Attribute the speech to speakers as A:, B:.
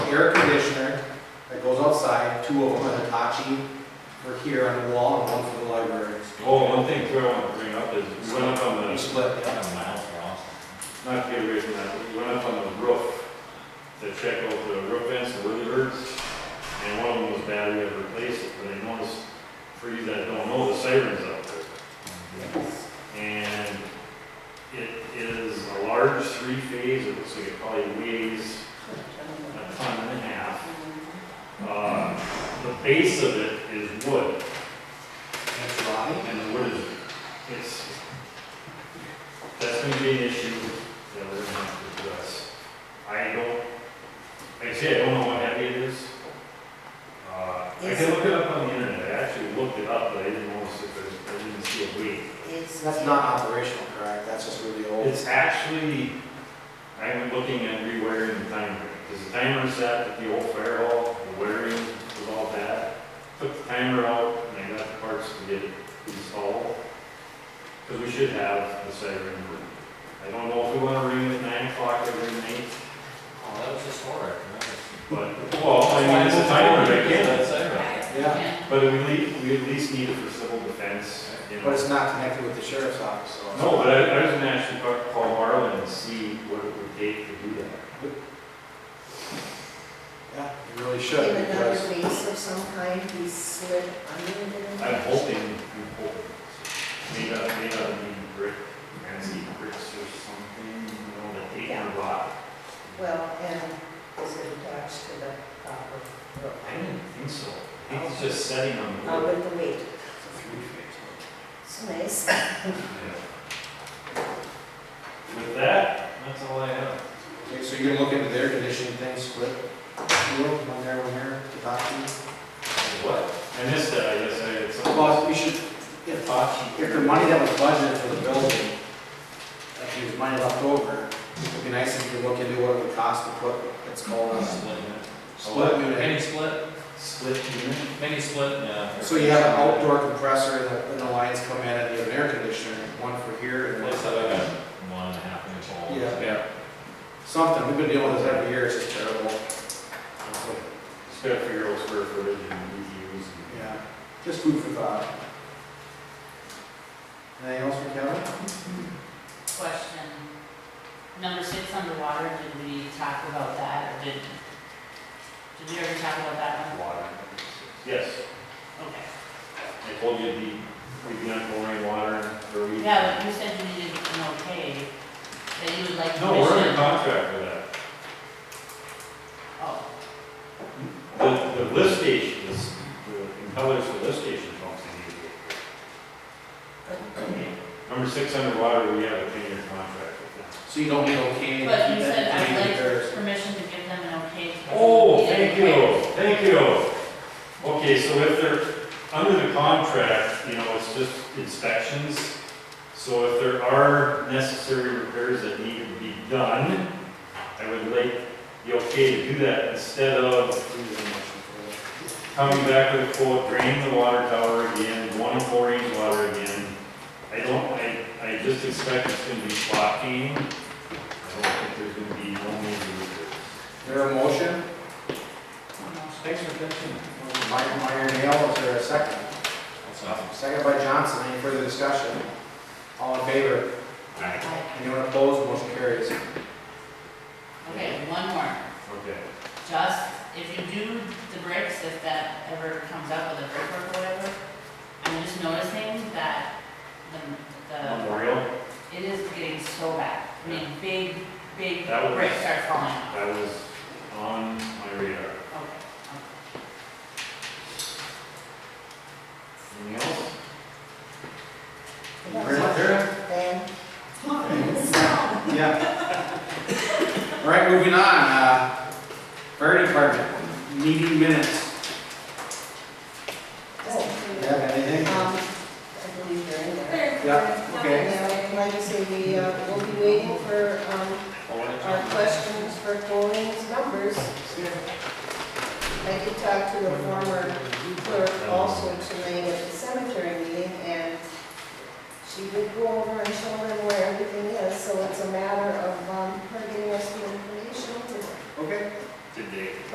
A: air conditioner that goes outside, two of them are Hitachi, for here on the wall and one for the library.
B: Oh, one thing too I want to bring up is, we went up on
A: We
B: the,
A: split, yeah.
B: not to get away from that, we went up on the roof to check out the roof vents, the wood birds, and one of them was bad, we had to replace it, but I noticed, for you that don't know, the sirens out there. And it is a large three-phase, it looks like it probably weighs a ton and a half. Uh, The base of it is wood,
A: That's right.
B: and the wood is, it's, that's gonna be an issue that we're gonna have to address. I don't, like I say, I don't know what heavy it is. Uh, I can look it up on the internet, I actually looked it up, but I didn't notice if there's, I didn't see a weight.
C: Is.
A: That's not operational, correct? That's just really old.
B: It's actually, I'm looking at rewiring the timer, because the timer set at the old fire hall, the wiring was all bad. Took the timer out, and I got the parts to get it installed, because we should have the siren. I don't know if we want to ring it at nine o'clock every night,
D: Oh, that was historic, right?
B: but, well,
A: Oh,
B: I mean, it's a timer, I can't.
D: That's right.
A: Yeah.
B: But we le, we at least need it for civil defense, you know.
A: But it's not connected with the sheriff's office, so.
B: No, but I, I was gonna actually call- call Marlin and see what it would take to do that.
A: Yeah, you really
C: In
A: should,
C: another
A: because
C: base of some kind, he slid under the.
B: I'm hoping, I'm hoping, maybe, maybe I'll be brick, fancy bricks or something, you know, that they can rot.
C: Well, and is it attached to the proper rope?
B: I didn't think so. I think it's just setting on the
C: How
B: wood.
C: would the weight?
B: It's a three phase.
C: It's nice.
B: With that, that's all I have.
A: Okay, so you're gonna look into their conditioning thing, split, you know, one there, one here, Hitachi.
B: What? I missed that, I guess I had some.
A: Well, we should, if,
B: Hibachi.
A: if the money that was budgeted for the building, if there's money left over, it'd be nice if you could look into what it would cost to put, it's called a
D: Split unit.
A: split
D: Mini
A: unit.
D: split,
B: Split unit.
D: mini split, yeah.
A: So you have an outdoor compressor that the lines come in and you have an air conditioner, one for here and one
D: Place
A: for
D: that I
A: there.
D: got one and a half inch hole.
A: Yeah.
D: Yeah.
A: Something, we've been dealing with this every year, it's just terrible.
B: Just gotta figure out square footage and EUs.
A: Yeah, just food for thought. Anything else from Kevin?
E: Question. Number six underwater, did we talk about that or did, did we ever talk about that
B: Water. Yes,
E: one? Okay.
B: I told you the, we'd be on pouring water for a week.
E: Yeah, but you said you needed an okay, that you would like
B: No, we're under
E: permission.
B: contract for that.
E: Oh,
B: The, the lift station, is- the impellers for lift station pumps in here. Number six underwater, we have a ten-year contract with them.
A: So you don't need okay?
E: but you said I would like
A: There's-
E: permission to give them an okay. to-
B: Oh, thank you, thank you. Okay, so if they're, under the contract, you know, it's just inspections. So if there are necessary repairs that need to be done, I would like you okay to do that instead of coming back with a quote, drain the water tower again, one and four inch water again. I don't, I, I just expect it's gonna be spot cleaning. I don't think there's gonna be no major repairs.
A: There a motion?
D: Thanks for pitching.
A: Meyer, Meyer Nail, is there a second?
D: That's awesome.
A: Second by Johnson, any further discussion? All in favor?
E: Aye.
A: Anyone opposed, motion carries.
E: Okay, one more.
B: Okay.
E: Just, if you do the bricks, if that ever comes up with a brickwork or whatever, I'm just noticing that the, the
B: Memorial,
E: It is getting so bad. I mean, big, big
B: That was-
E: bricks are falling off.
B: that was on my radar.
E: Okay, okay.
B: Anything else?
A: Very clear?
C: Then,
A: Yeah. All right, moving on, uh, fire department, meeting minutes.
C: oh,
A: You have anything?
C: Um, I believe they're in there.
A: Yeah, okay.
C: And like I say, we, uh, will be waiting for, um, our questions for Colleen's numbers. I did talk to a former clerk also tonight at the cemetery meeting, and she did go over and show them where everything is, so it's a matter of, um, her getting us the information to
A: Okay.
B: Did they